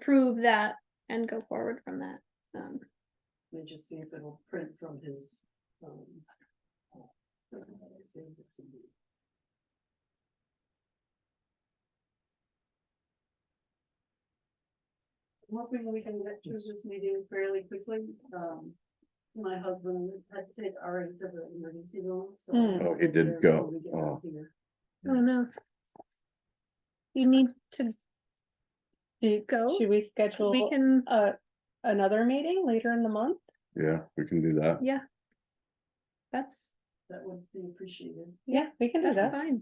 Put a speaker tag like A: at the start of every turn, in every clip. A: approve that and go forward from that. Um,
B: Let me just see if it'll print from his, um. let's see if it's in the- I'm Hoping we can get through this meeting fairly quickly, um, my husband had to take our into the emergency room, so.
A: Hmm.
C: Oh, he did
B: There,
C: go. Oh.
B: we get out here.
A: I don't know. You need to
D: Do-
A: go.
D: Should we
A: We
D: schedule
A: can,
D: uh another meeting later in the month?
C: Yeah, we can do that.
A: yeah. That's,
B: That would be appreciated.
D: Yeah, we can do
A: that's
D: that.
A: fine.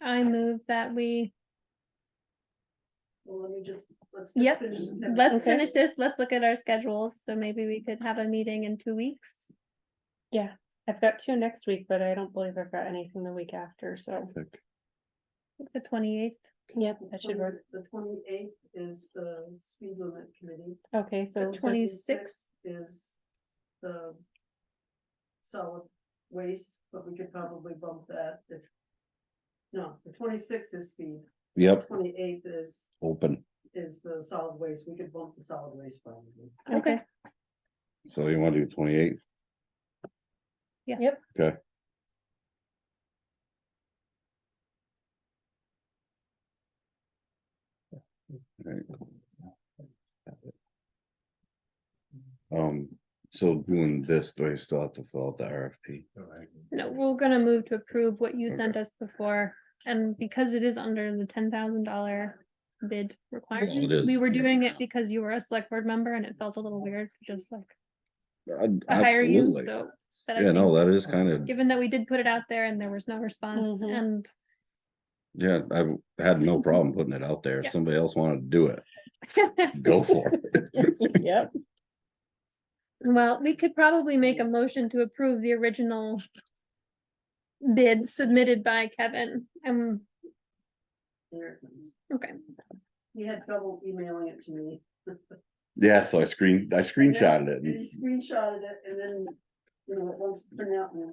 A: I move that we,
B: Well, let me just, let's. just
A: Yep,
B: finish the-
A: let's
D: Okay.
A: finish this, let's look at our schedule, so maybe we could have a meeting in two weeks.
D: Yeah, I've got two next week, but I don't believe I've got anything the week after, so.
C: Like,
A: The twenty-eighth,
D: Yep,
B: The
D: that should
B: 20
D: work.
B: The twenty-eighth is the speed limit committee.
D: Okay, so
B: The
A: 26th.
B: Is the solid waste, but we could probably bump that if. No, the twenty-sixth is speed,
C: Yep,
B: twenty-eighth is,
C: open.
B: is the solid waste, we could bump the solid waste probably.
A: okay.
D: okay,
C: So you want to do twenty eighth?
A: Yeah.
D: Yep.
C: Okay, alright. Um, so doing this, do I still have to fill out the RFP?
A: No, we're gonna move to approve what you sent us before, and because it is under the ten thousand dollar bid requirement.
C: is.
A: We were doing it because you were a select board member and it felt a little weird, to just like,
C: I'd-
A: to hire you,
C: Absolutely.
A: so. but I
C: Yeah, no,
A: think,
C: that is kind of,
A: Given that we did put it out there and there was no response
B: Mm-hmm.
D: Mhm.
A: and
C: yeah, I had no problem putting it out there. If
A: Yeah.
C: somebody else wanted to do it, go for it.
D: yep,
A: Well, we could probably make a motion to approve the original bid submitted by Kevin, um,
B: There it comes.
A: okay,
B: He had trouble emailing it to me.
C: Yeah, so I screen, I
B: And then-
C: screenshotted it.
B: and
C: and-
B: He screenshotted it and then, you know, it wants to print out and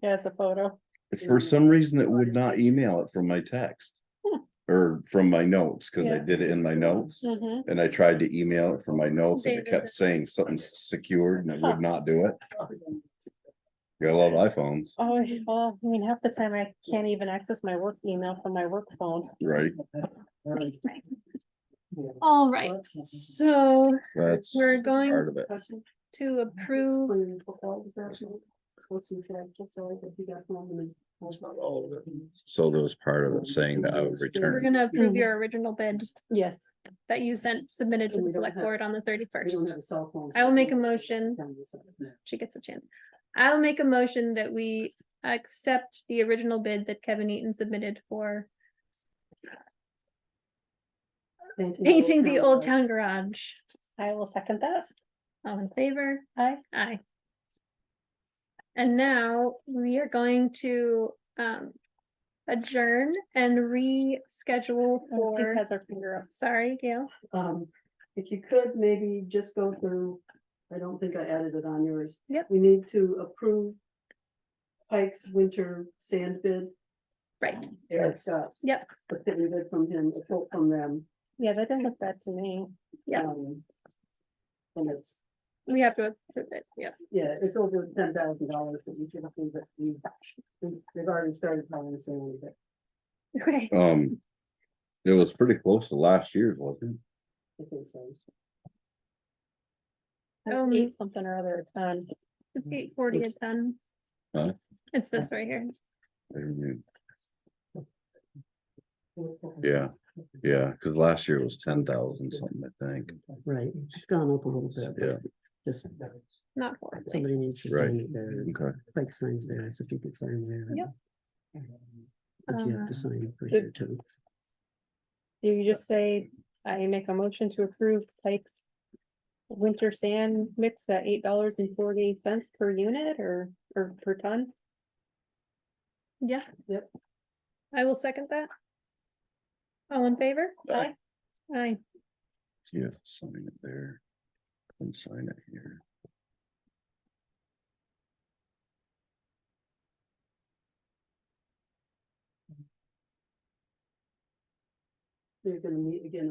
D: yeah, it's a photo.
C: For
B: Mhm.
C: some reason, it would not email it from my text.
D: Hmm.
C: Or from my notes, cause I
D: Yeah.
C: did it in my notes
A: Mm-hmm.
D: Mhm.
C: and I tried to email it from my notes and it
A: David
C: kept
A: does.
C: saying something's secured and it
D: Huh.
C: would not do it. I love iPhones,
D: Oh, yeah, well, I mean, half the time I can't even access my work email from my work phone.
C: right?
A: all right, so
C: That's
A: we're going
C: part of it.
A: to approve
C: So there was part of it saying that I would
A: We're
C: return.
A: gonna approve
D: Mhm.
A: your original bid
D: Yes,
A: that you sent submitted to the
B: Mm-hmm. And we don't
A: select
B: have-
A: board on the thirty
B: We don't
A: first.
B: have cell phones.
A: I will make a motion. She gets a chance. I'll make a motion that we accept the original bid that Kevin Eaton submitted for painting the old town garage.
D: I will second that.
A: All in favor?
D: Hi,
A: Aye. And now we are going to um adjourn and reschedule
D: Keith
A: for,
D: has her finger up.
A: sorry, Gail.
B: Um, if you could maybe just go through, I don't think I added it on yours.
A: Yep.
B: We need to approve Pike's winter sand bid.
A: Right,
B: Eric's got.
A: Yep.
B: The thing we did from him, a quote from them.
D: Yeah, that didn't look bad to me.
A: Yep.
B: um, And it's,
A: we have to approve it, yep.
B: yeah, it's over ten thousand dollars, but we should have, but we, we- they've already started calling the sand bid.
A: Okay.
C: Um, it was pretty close to last year's, wasn't
B: I think so.
D: That's
A: Um,
D: eight something or other, um,
A: It's eight forty at ten.
C: Huh?
A: It's this right here.
C: it? Yeah, yeah, cause last year was ten thousand something, I think.
B: Right, it's gone up a little bit. but
C: Yeah,
B: Just,
A: Not horribly.
B: somebody needs to
C: Right.
B: sign it there,
C: okay.
B: Pike signs there, so if you could sign there.
A: Yep.
B: If you have
A: Uh,
B: to sign for
D: So-
B: here too.
D: do you just say, I make a motion to approve Pike's winter sand mix at eight dollars and forty cents per unit or, or per ton?
A: Yeah.
B: Yep.
A: I will second that. All in favor?
C: Aye.
A: Aye.
C: Yeah, sign it there. And sign it here.
B: they're gonna meet again